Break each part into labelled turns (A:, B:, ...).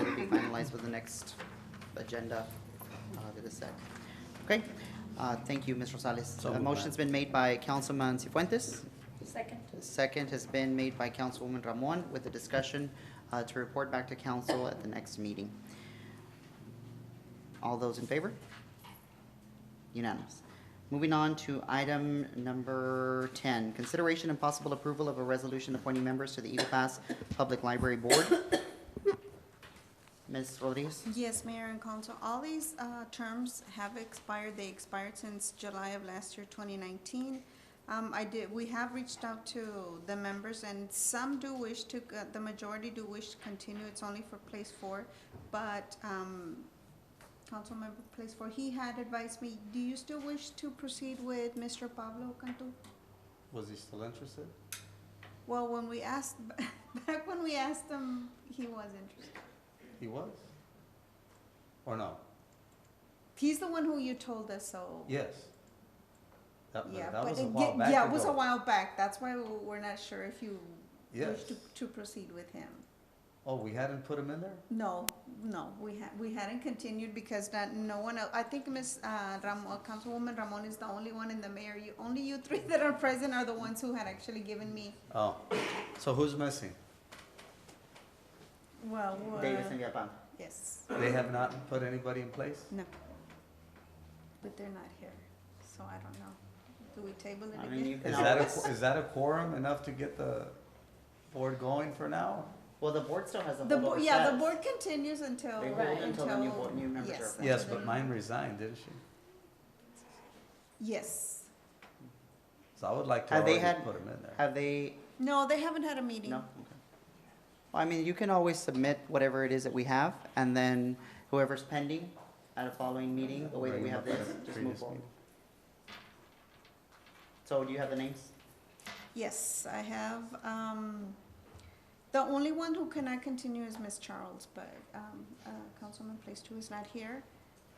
A: finalized with the next agenda, uh, with the SEC. Okay, uh, thank you, Ms. Rosales.
B: So
A: A
B: moved,
A: motion's been made by Councilman Cifuentes.
C: Second.
A: Second has been made by Councilwoman Ramon with the discussion uh, to report back to council at the next meeting. All those in favor? Unanimous. Moving on to item number 10, consideration and possible approval of a resolution appointing members to the Eagle Pass Public Library Board. Ms. Rodriguez?
D: Yes, Mayor and Council, all these uh, terms have expired. They expired since July of last year, 2019. Um, I did, we have reached out to the members, and some do wish to, uh, the majority do wish to continue. It's only for place four, but um, Councilmember place four, he had advised me, do you still wish to proceed with Mr. Pablo Cantu?
B: Was he still interested?
D: Well, when we asked, back when we asked him, he was interested.
B: He was? Or no?
D: He's the one who you told us, so.
B: Yes. That,
D: Yeah,
B: that
D: but
B: was a
D: it-
B: while back
D: Yeah, it was a
B: ago.
D: while back, that's why we- we're not sure if you
B: Yes.
D: wish to, to proceed with him.
B: Oh, we hadn't put him in there?
D: No, no, we ha- we hadn't continued because not, no one, el- I think Ms. uh, Ramon, Councilwoman Ramon is the only one in the mayor, you, only you three that are present are the ones who had actually given me,
B: Oh, so who's missing?
D: well,
A: Davis and
D: uh,
A: Villalpando.
D: yes,
B: They have not put anybody in place?
D: no. But they're not here, so I don't know. Do we table it
A: I mean, you
D: again?
A: can
B: Is that a,
A: always,
B: qu- is that a quorum enough to get the board going for now?
A: well, the board still has a
D: The, bo-
A: holdover
D: yeah, the
A: status.
D: board continues until,
A: They
C: hold
A: until the new
D: until-
A: board- new members are
D: yes,
A: appointed.
B: Yes,
D: until
B: but
D: the-
B: mine resigned, didn't she?
D: Yes.
B: So I would like to
A: Have they
B: already
A: had-
B: put him in there.
A: Have they
D: No, they haven't had a meeting.
A: No? Okay. Well, I mean, you can always submit whatever it is that we have, and then whoever's pending at a following meeting, the way that we have
B: Bring him
A: this,
B: up at a
A: just move
B: previous
A: forward.
B: meeting.
A: So do you have the names?
D: Yes, I have, um, the only one who cannot continue is Miss Charles, but, um, uh, Councilman Place Two is not here.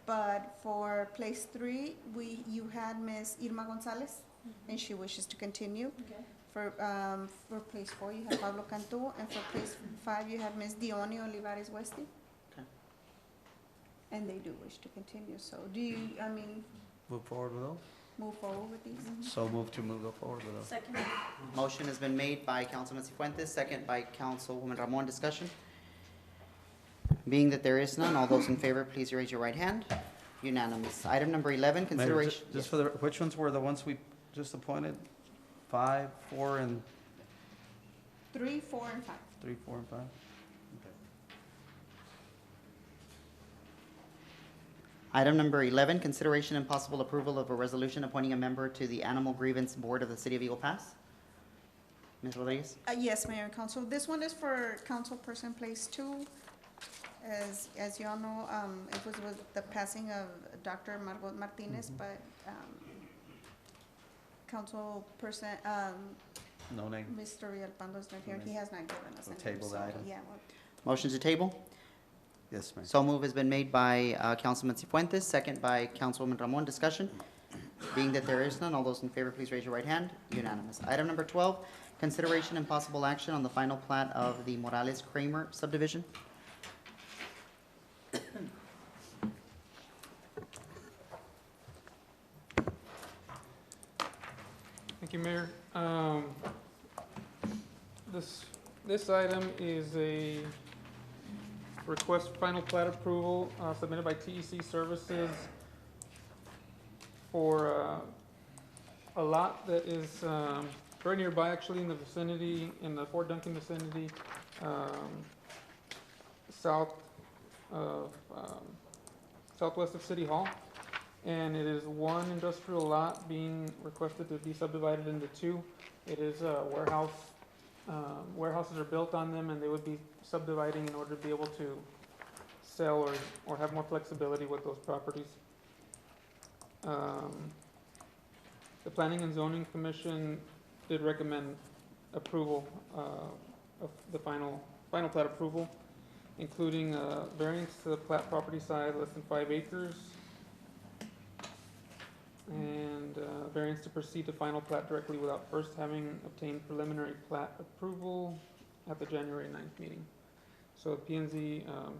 D: But for Place Three, we, you had Miss Irma Gonzalez, and she wishes to continue.
C: Okay.
D: For, um, for Place Four, you have Pablo Cantu, and for Place Five, you have Miss Dione Olivares Westy.
A: Okay.
D: And they do wish to continue, so do you, I mean,
B: Move forward with those?
D: move forward with these?
A: Mm-hmm.
B: So move to move forward with those.
C: Second.
A: Motion has been made by Councilman Cifuentes, second by Councilwoman Ramon. Discussion? Being that there is none, all those in favor, please raise your right hand. Unanimous. Item number eleven,
B: Mayor, ju-
A: consideration.
B: Just for the, which ones were the ones we just appointed? Five, four, and
D: Three, four, and five.
B: Three, four, and five?
A: Item number 11, consideration and possible approval of a resolution appointing a member to the Animal Grievance Board of the City of Eagle Pass. Ms. Rodriguez?
D: Uh, yes, Mayor and Council, this one is for Councilperson Place Two. As, as you all know, um, it was with the passing of Dr. Margot Martinez,
B: Mhm.
D: but, um, Councilperson, um,
B: No name.
D: Mr. Villalpando is not here, he has not given us
B: We'll
D: a name,
B: table the
D: so,
B: item.
D: yeah, well,
A: Motion to table?
B: Yes, ma'am.
A: So move has been made by uh, Councilman Cifuentes, second by Councilwoman Ramon. Discussion? Being that there is none, all those in favor, please raise your right hand. Unanimous. Item number 12, consideration and possible action on the final plat of the Morales Kramer subdivision.
E: Thank you, Mayor. Um, This, this item is a request for final plat approval uh, submitted by TEC Services for uh, a lot that is um, very nearby, actually, in the vicinity, in the Fort Duncan vicinity, um, south of, um, southwest of City Hall. And it is one industrial lot being requested to be subdivided into two. It is a warehouse, um, warehouses are built on them and they would be subdividing in order to be able to sell or, or have more flexibility with those properties. Um, The Planning and Zoning Commission did recommend approval, uh, of the final, final plat approval, including, uh, variance to the plat property size less than five acres, and uh, variance to proceed to final plat directly without first having obtained preliminary plat approval at the January 9th meeting. So P and Z, um,